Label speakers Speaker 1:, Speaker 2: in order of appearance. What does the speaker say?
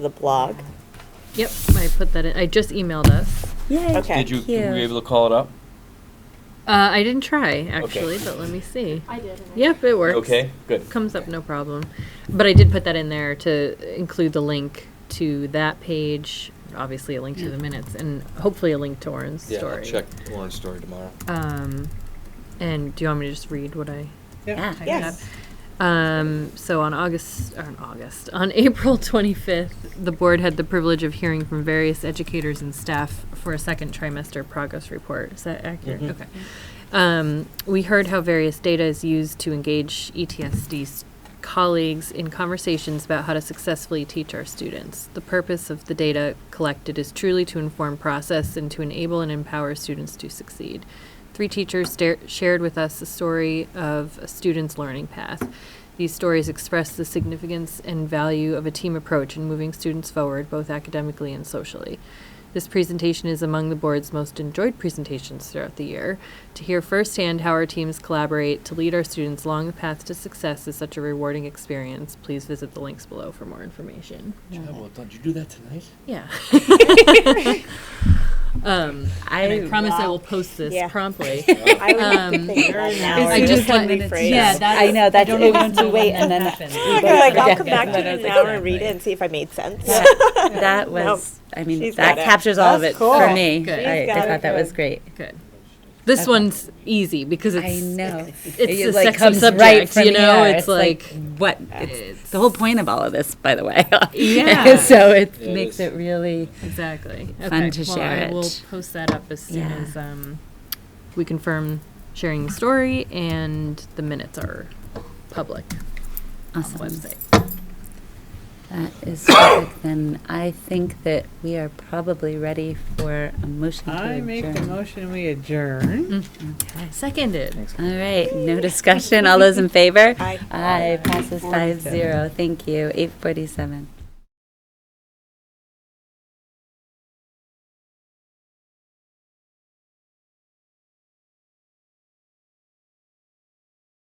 Speaker 1: the blog.
Speaker 2: Yep, I put that in. I just emailed us.
Speaker 3: Yay.
Speaker 1: Okay.
Speaker 4: Did you, were
Speaker 3: Cute.
Speaker 4: you able to call it up?
Speaker 2: Uh, I didn't try actually, but let me see.
Speaker 5: I did. and I-
Speaker 2: Yep, it works.
Speaker 4: Okay, good.
Speaker 2: Comes up no problem. But I did put that in there to include the link to that page, obviously a link to the minutes, and hopefully a link to Oren's
Speaker 4: Yeah, I'll
Speaker 2: story.
Speaker 4: check Lauren's story tomorrow.
Speaker 2: Um, and do you want me to just read what I?
Speaker 3: Yeah.
Speaker 2: I
Speaker 1: Yes.
Speaker 2: had? Um, so on August, or on August, on April 25th, the board had the privilege of hearing from various educators and staff for a second trimester progress report. Is that accurate? Okay. Um, we heard how various data is used to engage E ETSD's colleagues in conversations about how to successfully teach our students. The purpose of the data collected is truly to inform process and to enable and empower students to succeed. Three teachers sta- shared with us the story of a student's learning path. These stories express the significance and value of a team approach in moving students forward, both academically and socially. This presentation is among the board's most enjoyed presentations throughout the year. To hear firsthand how our teams collaborate to lead our students along the path to success is such a rewarding experience. Please visit the links below for more information.
Speaker 4: well done. Did you do that tonight?
Speaker 2: Yeah. um,
Speaker 3: I,
Speaker 2: and I promise I
Speaker 1: wow.
Speaker 2: will post this
Speaker 1: Yeah.
Speaker 2: promptly.
Speaker 1: I would have to
Speaker 2: Um,
Speaker 1: think about that now.
Speaker 2: I
Speaker 1: or
Speaker 2: just
Speaker 1: can
Speaker 2: let-
Speaker 1: rephrase.
Speaker 2: yeah, that-
Speaker 3: I know that's
Speaker 2: don't know
Speaker 3: it
Speaker 2: when
Speaker 3: was
Speaker 2: to
Speaker 3: too
Speaker 2: wait
Speaker 3: late,
Speaker 2: and
Speaker 3: and
Speaker 2: then
Speaker 3: then
Speaker 2: happens.
Speaker 1: I'm like, I'll
Speaker 3: Yeah,
Speaker 1: come
Speaker 3: yeah,
Speaker 1: back to it
Speaker 3: that
Speaker 1: in
Speaker 3: is
Speaker 1: an hour and
Speaker 3: exactly.
Speaker 1: read it and see if I made sense.
Speaker 3: that was. I mean,
Speaker 1: She's
Speaker 3: that
Speaker 1: got it.
Speaker 3: captures all of
Speaker 1: That's
Speaker 3: it
Speaker 1: cool.
Speaker 3: for me.
Speaker 2: Good.
Speaker 3: I,
Speaker 1: She's
Speaker 3: I
Speaker 1: got
Speaker 3: thought
Speaker 1: it
Speaker 3: that was
Speaker 1: good.
Speaker 3: great.
Speaker 2: Good. This one's easy because it's
Speaker 3: I know.
Speaker 2: It's
Speaker 3: It,
Speaker 2: a
Speaker 3: like,
Speaker 2: sexy
Speaker 3: comes
Speaker 2: subject,
Speaker 3: right from
Speaker 2: you know.
Speaker 3: here.
Speaker 2: It's, like,
Speaker 3: what it's the whole point of all of this, by the way.
Speaker 2: Yeah.
Speaker 3: so it
Speaker 4: It
Speaker 3: makes
Speaker 4: is.
Speaker 3: it really
Speaker 2: Exactly.
Speaker 3: Fun to
Speaker 2: well,
Speaker 3: share
Speaker 2: I will
Speaker 3: it.
Speaker 2: post that up as soon
Speaker 3: Yeah.
Speaker 2: as um, we confirm sharing the story and the minutes are public on the
Speaker 3: awesome.
Speaker 2: website.
Speaker 3: That is perfect. then I think that we are probably ready for a motion to
Speaker 6: I make the
Speaker 3: adjourn.
Speaker 6: motion we adjourn.
Speaker 3: Okay.
Speaker 2: Seconded.
Speaker 3: All right, no discussion. All those in favor?
Speaker 1: Aye.
Speaker 3: Aye, passes five zero. Thank you. Eight forty-seven.